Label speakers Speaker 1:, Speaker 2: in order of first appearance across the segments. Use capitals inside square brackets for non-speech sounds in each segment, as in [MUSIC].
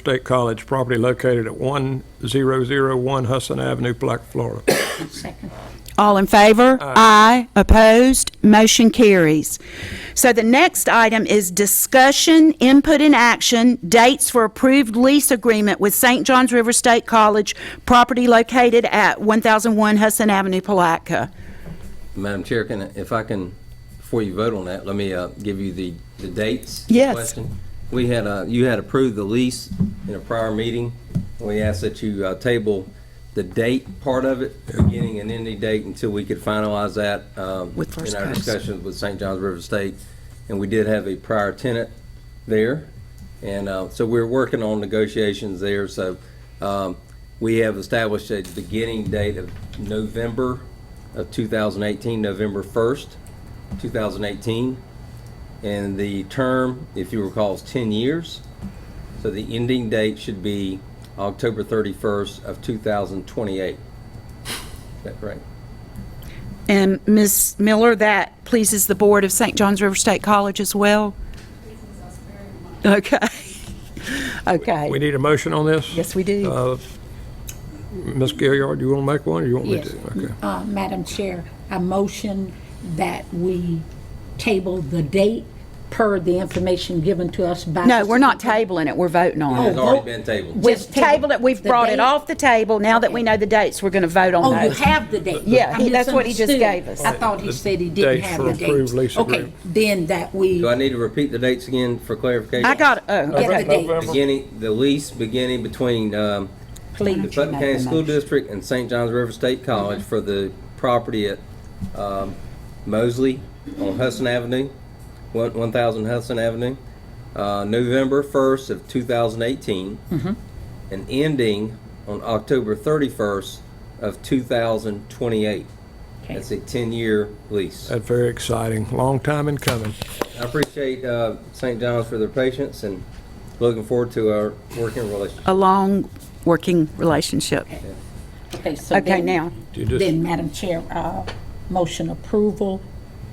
Speaker 1: State College property located at 1001 Hudson Avenue, Black, Florida.
Speaker 2: [COUGHS] second,
Speaker 3: All in favor? Aye. Opposed? Motion carries. So the next item is discussion, input, and action, dates for approved lease agreement with St. Johns River State College, property located at 1001 Hudson Avenue, Palatka.
Speaker 4: Madam Chair, can, I- if I can, before you vote on that, let me uh, give you the, the dates.
Speaker 3: Yes.
Speaker 4: question. We had, uh, you had approved the lease in a prior meeting. We asked that you uh, table the date part of it, beginning and ending date, until we could finalize that. um,
Speaker 3: With first
Speaker 4: In our
Speaker 3: pass.
Speaker 4: discussions with St. John's River State. And we did have a prior tenant there. And uh, so we're working on negotiations there. So um, we have established a beginning date of November of 2018, November 1st, 2018. And the term, if you recall, is 10 years. So the ending date should be October 31st of 2028. Is that correct?
Speaker 3: And Ms. Miller, that pleases the board of St. Johns River State College as well? Okay.
Speaker 1: We
Speaker 3: Okay.
Speaker 1: need a motion on this?
Speaker 3: Yes, we do.
Speaker 1: Uh, Ms. Gilliard, do you want to make one, or you want me
Speaker 2: yes.
Speaker 1: to? Okay.
Speaker 2: Uh, Madam Chair, I motion that we table the date per the information given to us by.
Speaker 3: No, we're not tabling it, we're voting on it.
Speaker 4: It's already been tabled.
Speaker 2: Oh, Just
Speaker 3: Just tabled it, we've
Speaker 2: the
Speaker 3: brought it
Speaker 2: date.
Speaker 3: off the table, now that we know the dates, we're going to vote on
Speaker 2: Oh, you
Speaker 3: those.
Speaker 2: have the date?
Speaker 3: Yeah,
Speaker 2: I
Speaker 3: he- that's what he just
Speaker 2: misunderstood.
Speaker 3: gave us.
Speaker 2: I thought he
Speaker 1: The
Speaker 2: said he didn't
Speaker 1: dates
Speaker 2: have
Speaker 1: for
Speaker 2: the
Speaker 1: approved
Speaker 2: dates.
Speaker 1: lease
Speaker 2: Okay,
Speaker 1: agreement.
Speaker 2: then that we
Speaker 4: Do I need to repeat the dates again for clarification?
Speaker 3: I got, oh,
Speaker 2: get the
Speaker 3: okay.
Speaker 2: date,
Speaker 4: Beginning, the lease beginning between um, the
Speaker 2: please.
Speaker 4: Putnam County School District and St. John's River State College
Speaker 3: Mm-hmm.
Speaker 4: for the property at um, Mosley on Hudson Avenue, one- 1,000 Hudson Avenue, uh, November 1st of 2018,
Speaker 3: Mm-hmm.
Speaker 4: and ending on October 31st of 2028. That's a 10-year lease.
Speaker 1: That's very exciting, long time in coming.
Speaker 4: I appreciate uh, St. John's for their patience and looking forward to our working relationship.
Speaker 3: A long working relationship.
Speaker 2: so
Speaker 3: Okay,
Speaker 2: then-
Speaker 3: now,
Speaker 1: You just-
Speaker 2: Then, Madam Chair, uh, motion approval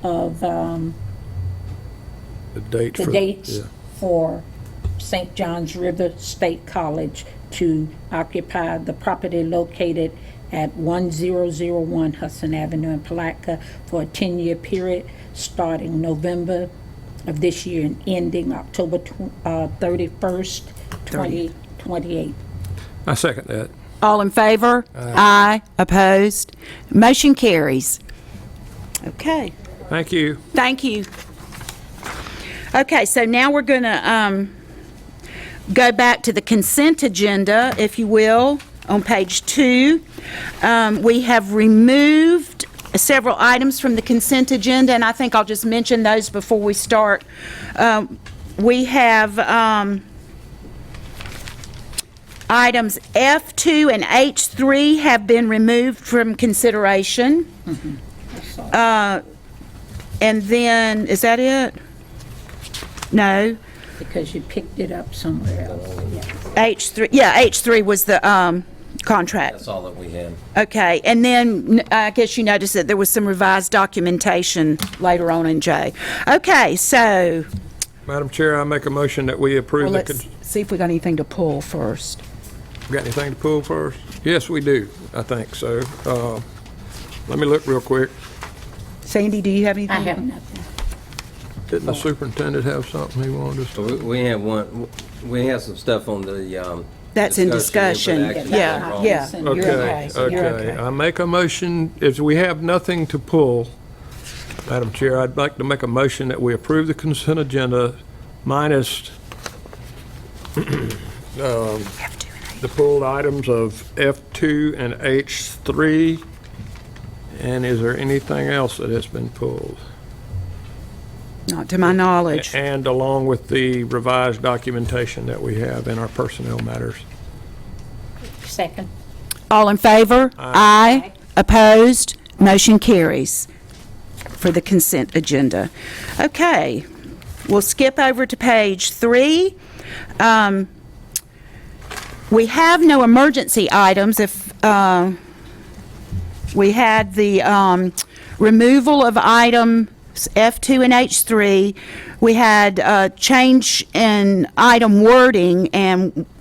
Speaker 2: of um,
Speaker 1: The date
Speaker 2: the
Speaker 1: for-
Speaker 2: dates
Speaker 1: yeah.
Speaker 2: for St. John's River State College to occupy the property located at 1001 Hudson Avenue in Palatka for a 10-year period starting November of this year and ending October tw- uh, 31st, 2028.
Speaker 1: I second that.
Speaker 3: all in favor? Aye. Opposed? Motion carries. Okay.
Speaker 1: Thank you.
Speaker 3: Thank you. Okay, so now we're going to go back to the consent agenda, if you will, on page two. Um, We have removed several items from the consent agenda, and I think I'll just mention those before we start. Um, We have um, items F2 and H3 have been removed from consideration. And then, is that it? No?
Speaker 2: Because you picked it up somewhere else.
Speaker 3: H3, yeah, H3 was the um, contract.
Speaker 4: That's all that we have.
Speaker 3: Okay, and then n- I guess you noticed that there was some revised documentation later on in J. Okay, so,
Speaker 1: Madam Chair, I make a motion that we approve the,
Speaker 3: let's
Speaker 1: con-
Speaker 3: see if we got anything to pull first.
Speaker 1: got anything to pull first? Yes, we do, I think so. Uh, Let me look real quick.
Speaker 3: Sandy, do you have
Speaker 2: I
Speaker 3: anything?
Speaker 2: have nothing.
Speaker 1: Didn't
Speaker 2: Oh.
Speaker 1: the superintendent have something he wanted us to?
Speaker 4: We- We have one, we have some stuff on the, um.
Speaker 3: That's in
Speaker 4: input
Speaker 3: discussion.
Speaker 4: action later
Speaker 3: Yeah,
Speaker 4: on.
Speaker 3: yeah.
Speaker 2: You're
Speaker 3: You're
Speaker 1: Okay,
Speaker 3: You're
Speaker 1: okay. I make a motion, if we have nothing to pull, Madam Chair, I'd like to make a motion that we approve the consent agenda minus [CLEARS THROAT] um, the pulled items of F2 and H3. And is there anything else that has been pulled?
Speaker 3: Not to my knowledge.
Speaker 1: And along with the revised documentation that we have in our personnel matters.
Speaker 2: Second.
Speaker 3: All in favor? Aye. Opposed? Motion carries for the consent agenda. Okay, we'll skip over to page three. Um, We have no emergency items if, uh, we had the um, removal of items F2 and uh, H3. We had a change in item wording, and uh,